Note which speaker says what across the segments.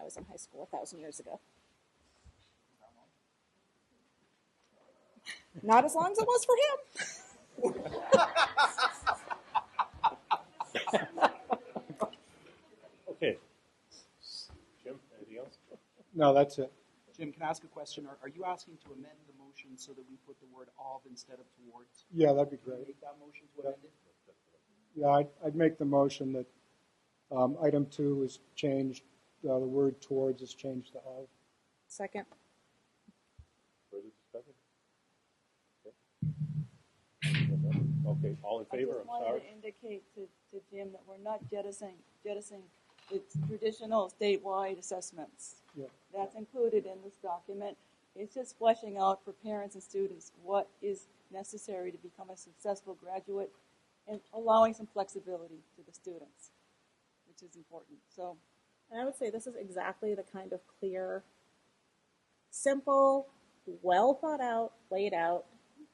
Speaker 1: I was in high school a thousand years ago. Not as long as it was for him.
Speaker 2: Okay. Jim, anything else?
Speaker 3: No, that's it.
Speaker 4: Jim, can I ask a question? Are, are you asking to amend the motion so that we put the word of instead of towards?
Speaker 3: Yeah, that'd be
Speaker 4: Can you
Speaker 3: great.
Speaker 4: Make that motion to amend it?
Speaker 3: Yeah, I'd, I'd make the motion that um, item two is changed, uh, the word towards is changed to of.
Speaker 1: Second.
Speaker 2: Further discussion? Okay. Okay, all in favor, I'm sorry.
Speaker 5: I just wanted to indicate to, to Jim that we're not jettisoning, jettisoning the traditional statewide assessments.
Speaker 3: Yeah.
Speaker 5: That's included in this document. It's just fleshing out for parents and students what is necessary to become a successful graduate and allowing some flexibility to the students, which is important. So
Speaker 1: And I would say this is exactly the kind of clear, simple, well thought out, laid out,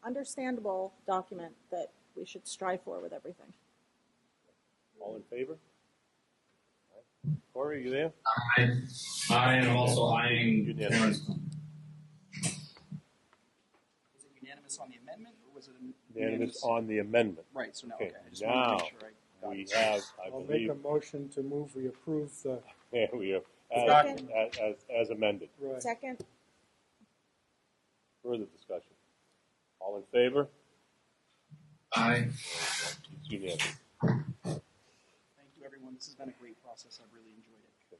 Speaker 1: understandable document that we should strive for with everything.
Speaker 2: All in favor? Corey, are you there?
Speaker 6: I, I am also eyeing
Speaker 2: Unanimous.
Speaker 6: Terrence.
Speaker 4: Is it unanimous on the amendment or was it? an-
Speaker 2: Unanimous on the amendment.
Speaker 4: Right, so now,
Speaker 2: Okay,
Speaker 4: okay, I just wanted to
Speaker 2: now
Speaker 4: make sure I got
Speaker 2: We
Speaker 4: it.
Speaker 2: have, I
Speaker 3: I'll make
Speaker 2: believe,
Speaker 3: a motion to move, we approve the,
Speaker 2: yeah, we have, as,
Speaker 1: Second.
Speaker 2: as, as amended.
Speaker 3: right.
Speaker 1: Second.
Speaker 2: Further discussion? All in favor?
Speaker 6: I,
Speaker 2: It's unanimous.
Speaker 4: Thank you, everyone. This has been a great process. I've really enjoyed it.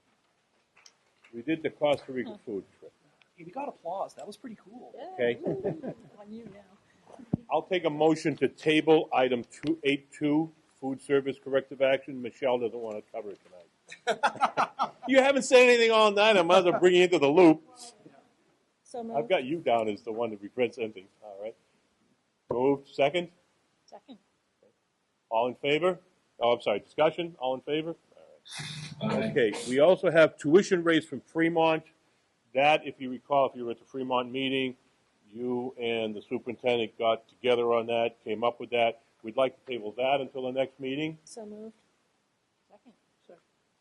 Speaker 2: We did the Costa Rica food trip,
Speaker 4: Hey, we got applause. That was pretty cool.
Speaker 2: okay?
Speaker 5: on you now.
Speaker 2: I'll take a motion to table item two, eight two, food service corrective action. Michelle doesn't want to cover it tonight. You haven't said anything all night, I might as well bring you into the loop.
Speaker 1: So
Speaker 2: I've
Speaker 1: moved.
Speaker 2: got you down as the one to be presenting, all right? Moved, second?
Speaker 1: Second.
Speaker 2: All in favor? Oh, I'm sorry, discussion, all in favor?
Speaker 6: I,
Speaker 2: Okay, we also have tuition rates from Fremont. That, if you recall, if you were at the Fremont meeting, you and the superintendent got together on that, came up with that. We'd like to table that until the next meeting.
Speaker 1: So moved. Second.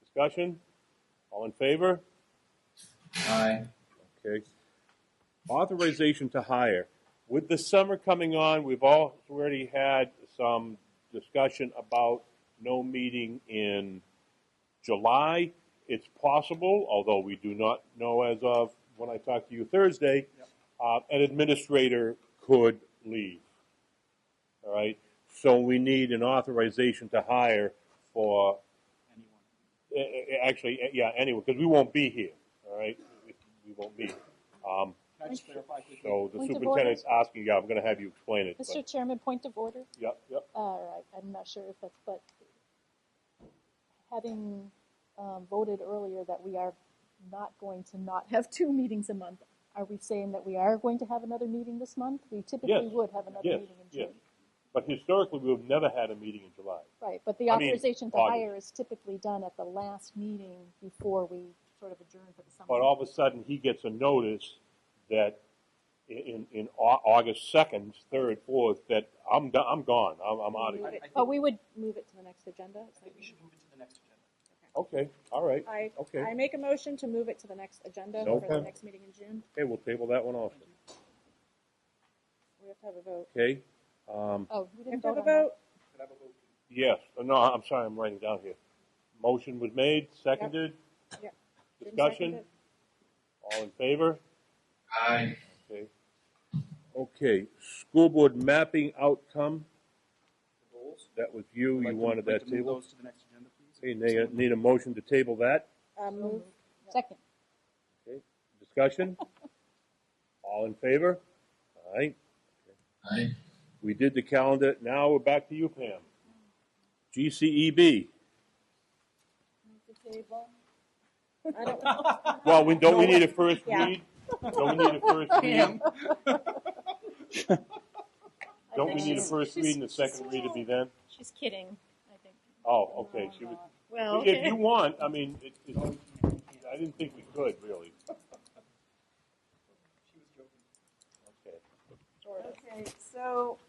Speaker 2: Discussion? All in favor?
Speaker 6: I,
Speaker 2: Okay. Authorization to hire. With the summer coming on, we've all already had some discussion about no meeting in July. It's possible, although we do not know as of when I talk to you Thursday, uh, an administrator could leave. All right? So we need an authorization to hire for
Speaker 4: Anyone?
Speaker 2: uh, actually, uh, yeah, anyway, because we won't be here, all right? We won't be. Um,
Speaker 4: Can I just clarify quickly?
Speaker 2: so the
Speaker 7: Point of
Speaker 2: superintendent's asking, yeah, I'm gonna have you explain it. but-
Speaker 7: Mr. Chairman, point of order.
Speaker 2: Yep, yep,
Speaker 7: All right, I'm not sure if that's, but having um, voted earlier that we are not going to not have two meetings a month, are we saying that we are going to have another meeting this month? We typically
Speaker 2: Yes.
Speaker 7: would have another
Speaker 2: Yes,
Speaker 7: meeting in
Speaker 2: yes.
Speaker 7: June.
Speaker 2: but historically, we've never had a meeting in July.
Speaker 7: Right, but the
Speaker 2: I mean,
Speaker 7: authorization to
Speaker 2: August.
Speaker 7: hire is typically done at the last meeting before we sort of adjourn for the summer.
Speaker 2: But all of a sudden, he gets a notice that i- in, in Au- August second, third, fourth, that I'm, do- I'm gone, I'm, I'm out of
Speaker 4: I,
Speaker 2: here.
Speaker 4: I think,
Speaker 7: But we would,
Speaker 1: Oh, Move it to the next agenda.
Speaker 4: I think we should move it to the next agenda.
Speaker 2: Okay, all right,
Speaker 1: I,
Speaker 2: okay.
Speaker 1: I make a motion to move it to the next agenda
Speaker 2: No
Speaker 1: for the
Speaker 2: problem.
Speaker 1: next meeting in June.
Speaker 2: Okay, we'll table that one also,
Speaker 1: We have to have a vote.
Speaker 2: okay? Um,
Speaker 7: oh,
Speaker 1: We
Speaker 7: we
Speaker 1: have
Speaker 7: didn't
Speaker 1: to
Speaker 7: vote
Speaker 1: have a
Speaker 7: on that.
Speaker 1: vote.
Speaker 4: Could I have a vote?
Speaker 2: yes, Uh, no, I'm sorry, I'm writing down here. Motion was made, seconded,
Speaker 1: Yep. Jim
Speaker 2: discussion?
Speaker 1: seconded.
Speaker 2: All in favor?
Speaker 6: I,
Speaker 2: Okay. Okay, school board mapping outcome,
Speaker 4: The goals?
Speaker 2: that was you,
Speaker 4: I'd
Speaker 2: you
Speaker 4: like to-
Speaker 2: wanted
Speaker 4: like
Speaker 2: that
Speaker 4: to move
Speaker 2: table.
Speaker 4: those to the next agenda, please.
Speaker 2: Okay, need a, need a motion to table that,
Speaker 1: Uh, move.
Speaker 7: Second,
Speaker 2: discussion? All in favor? All right,
Speaker 6: I,
Speaker 2: we did the calendar, now we're back to you, Pam. E GCEB,
Speaker 5: Move the table.
Speaker 1: I don't know.
Speaker 2: well, we, don't we need a first
Speaker 1: Yeah.
Speaker 2: read? Don't we need a first read? Don't we need a first read and a second read to be then?
Speaker 7: she's kidding, I think.
Speaker 2: Oh, okay, she was,
Speaker 7: Well,
Speaker 2: if you want, I mean, it, it, I didn't think we could, really.
Speaker 4: She was joking.
Speaker 2: Okay.
Speaker 5: Okay, so.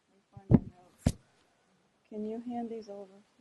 Speaker 5: Let me find my notes. Can you hand these over?